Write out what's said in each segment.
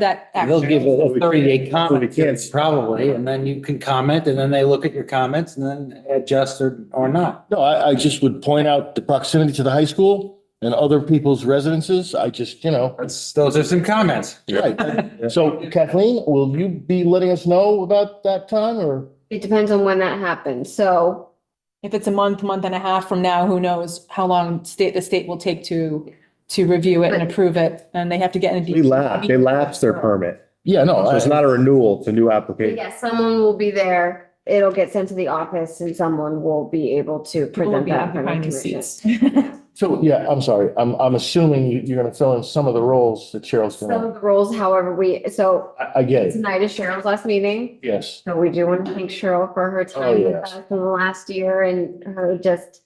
that They'll give action. it a We can't- thirty-day comment we can't- period probably, and then you can comment, and then they look at your comments and then adjust or, or not. No, I, I just would point out the proximity to the high school and other people's residences. I just, you know. That's, those are some comments. Right. So Kathleen, will you be letting us know about that time or? It depends on when that happens, so If it's a month, month and a half from now, who knows how long state, the state will take to, to review it and approve it, and they have to get in. They lapse, they lapse their permit. Yeah, no, So I- it's not a renewal, it's a new application. yes, someone will be there. It'll get sent to the office and someone will be able to present that. for Behind the commission. seats. so, yeah, I'm sorry. I'm, I'm assuming you, you're going to fill in some of the roles that Cheryl's going Some to. of the roles, however, we, so I, I get it. tonight is Cheryl's last meeting. Yes. So we do want to thank Cheryl for her time with yes. us in the last year and her just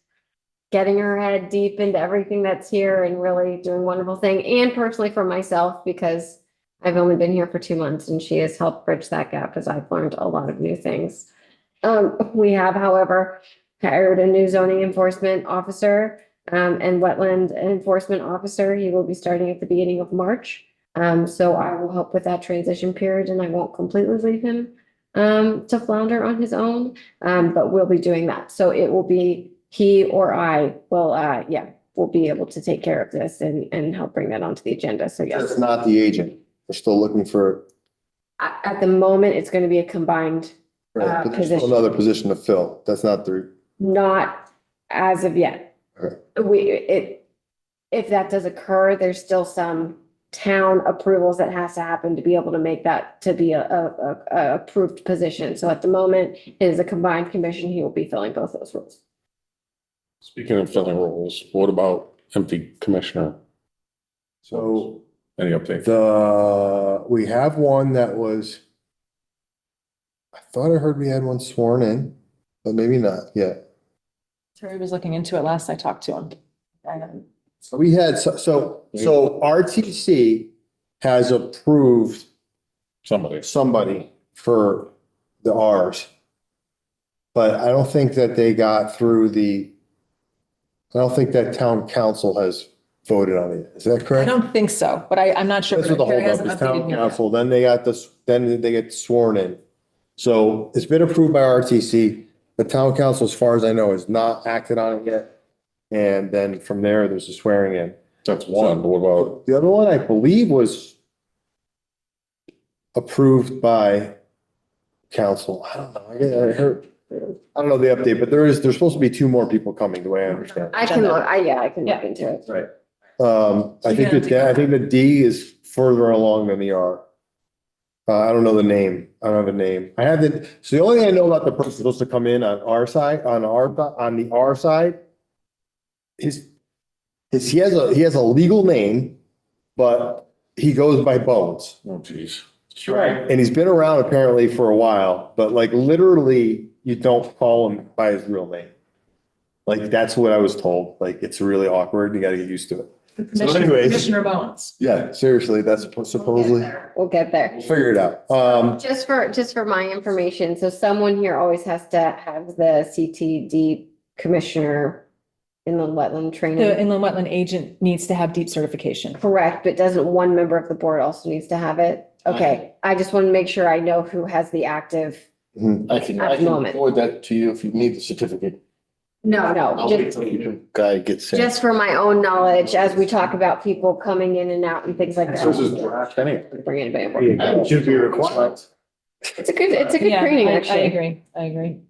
getting her head deep into everything that's here and really doing wonderful thing. And personally for myself, because I've only been here for two months and she has helped bridge that gap as I've learned a lot of new things. Um, we have, however, hired a new zoning enforcement officer um, and wetland enforcement officer. He will be starting at the beginning of March. Um, so I will help with that transition period and I won't completely leave him um, to flounder on his own, um, but we'll be doing that. So it will be he or I will, uh, yeah, will be able to take care of this and, and help bring that onto the agenda. So yes, not the agent. We're still looking for at, at the moment, it's going to be a combined, Uh, but there's still position. another position to fill. That's not the. not as of yet. Okay. We, it, if that does occur, there's still some town approvals that has to happen to be able to make that to be a, a, a- a approved position. So at the moment, it is a combined commission. He will be filling both those roles. Speaking of filling roles, what about empty commissioner? So Any update? the, we have one that was. I thought I heard we had one sworn in, but maybe not yet. Terry was looking into it last I talked to him. Um, So we had, so, so, so RTC has approved Somebody. somebody for the Rs. But I don't think that they got through the, I don't think that town council has voted on it. Is that I correct? don't think so, but I, I'm not sure. That's what the Terry holdup is, hasn't updated town me yet. council, then they got this, then they get sworn in. So it's been approved by RTC, the town council, as far as I know, has not acted on it yet. And then from there, there's a swearing in. That's one. What about, The other one, I believe, was approved by council, I don't know, I get- I heard, I don't know the update, but there is, there's supposed to be two more people coming, the way I understand. I can look, I, yeah, I can look into it. Right. Um, I think Yeah. that, I think the D is further along than the R. Uh, I don't know the name. I don't have a name. I have the, so the only thing I know about the person supposed to come in on our side, on our, on the R side. Is, is he has a, he has a legal name, but he goes by Bones. oh geez. Right. And he's been around apparently for a while, but like literally, you don't call him by his real name. Like, that's what I was told. Like, it's really awkward. You gotta get used to it. Commissioner anyways- Commissioner Bones. Yeah, seriously, that's supposedly, We'll get there. figure it out. Um, Just for, just for my information, so someone here always has to have the CTD commissioner in the wetland The training. inland wetland agent needs to have deep certification. Correct, but doesn't one member of the board also needs to have it? Okay, I just want to make sure I know who has the active. I can, At I the can moment. forward that to you if you need the certificate. No, no, just, Guy gets sent. just for my own knowledge, as we talk about people coming in and out and things like that. anyway. Bring anybody aboard. Should be required. It's a good, it's a good Yeah, training, I- I actually. agree, I agree.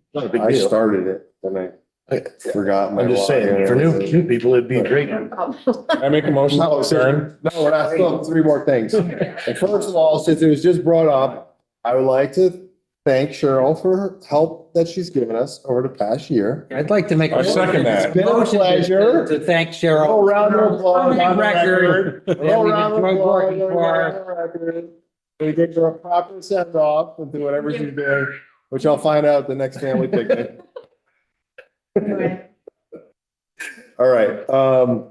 I started it, then I forgot. my I'm just login saying, and for new, everything. new people, it'd be great. I make a motion. No, sir. No, we're not, still three more things. First of all, since it was just brought up, I would like to thank Cheryl for her help that she's given us over the past year. I'd like to make. a I second that. It's been a motion to- pleasure. To thank Cheryl. Roll round of applause. On the record. Roll Yeah, we've round of enjoyed applause. working Roll for round her. of record. We give her a proper send off and do whatever she's doing, which I'll find out at the next family picnic. All right, um,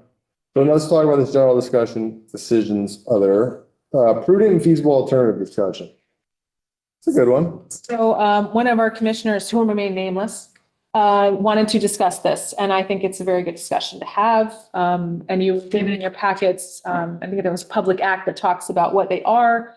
so now let's talk about this general discussion, decisions, other, uh, prudent and feasible alternative discussion. It's a good one. So um, one of our commissioners, who will remain nameless, uh, wanted to discuss this, and I think it's a very good discussion to have. Um, And you gave it in your packets, um, I think there was a public act that talks about what they are,